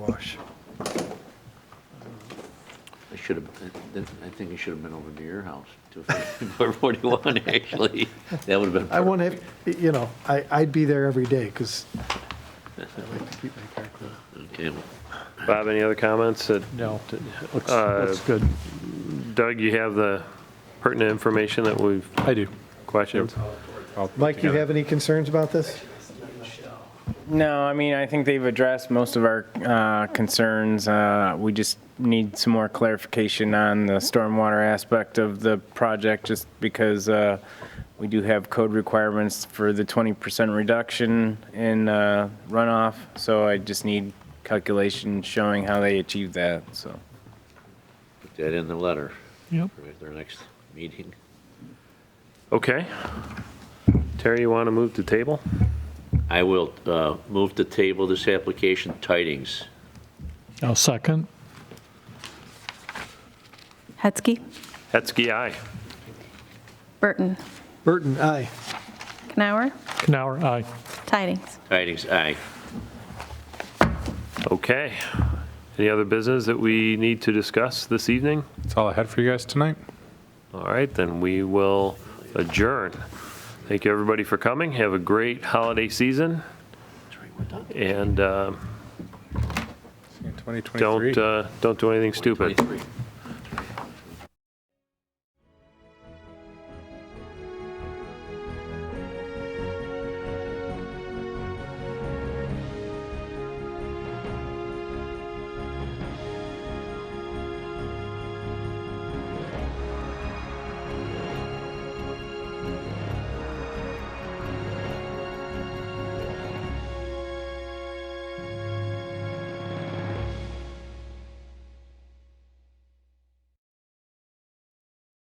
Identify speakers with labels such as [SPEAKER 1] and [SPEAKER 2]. [SPEAKER 1] should have, I think it should have been over to your house, to 41, actually. That would have been.
[SPEAKER 2] I
[SPEAKER 1] perfect.
[SPEAKER 2] want to, you know, I, I'd be there every day because I like to keep my car clean.
[SPEAKER 1] Okay, well,
[SPEAKER 3] Bob, any other comments? That-
[SPEAKER 4] No, looks,
[SPEAKER 3] Uh,
[SPEAKER 4] looks good.
[SPEAKER 3] Doug, you have the pertinent information that we've
[SPEAKER 4] I do.
[SPEAKER 3] questioned?
[SPEAKER 2] Mike, you have any concerns about this?
[SPEAKER 5] No, I mean, I think they've addressed most of our uh, concerns. Uh, We just need some more clarification on the stormwater aspect of the project, just because uh, we do have code requirements for the 20% reduction in uh, runoff, so I just need calculations showing how they achieved that, so.
[SPEAKER 1] Put that in the letter
[SPEAKER 4] Yep.
[SPEAKER 1] for their next meeting.
[SPEAKER 3] Okay. Terry, you want to move to table?
[SPEAKER 1] I will uh, move to table this application, tidings.
[SPEAKER 4] I'll second.
[SPEAKER 6] Hetzke.
[SPEAKER 3] Hetzke, aye.
[SPEAKER 6] Burton.
[SPEAKER 2] Burton, aye.
[SPEAKER 6] Knauer.
[SPEAKER 4] Canower, aye.
[SPEAKER 6] Tidings.
[SPEAKER 1] Tidings, aye.
[SPEAKER 3] Okay. Any other business that we need to discuss this evening?
[SPEAKER 7] That's all I had for you guys tonight.
[SPEAKER 3] All right, then we will adjourn. Thank you, everybody, for coming. Have a great holiday season. And um, uh,
[SPEAKER 7] 2023.
[SPEAKER 3] don't, uh, don't do anything stupid.
[SPEAKER 1] 23.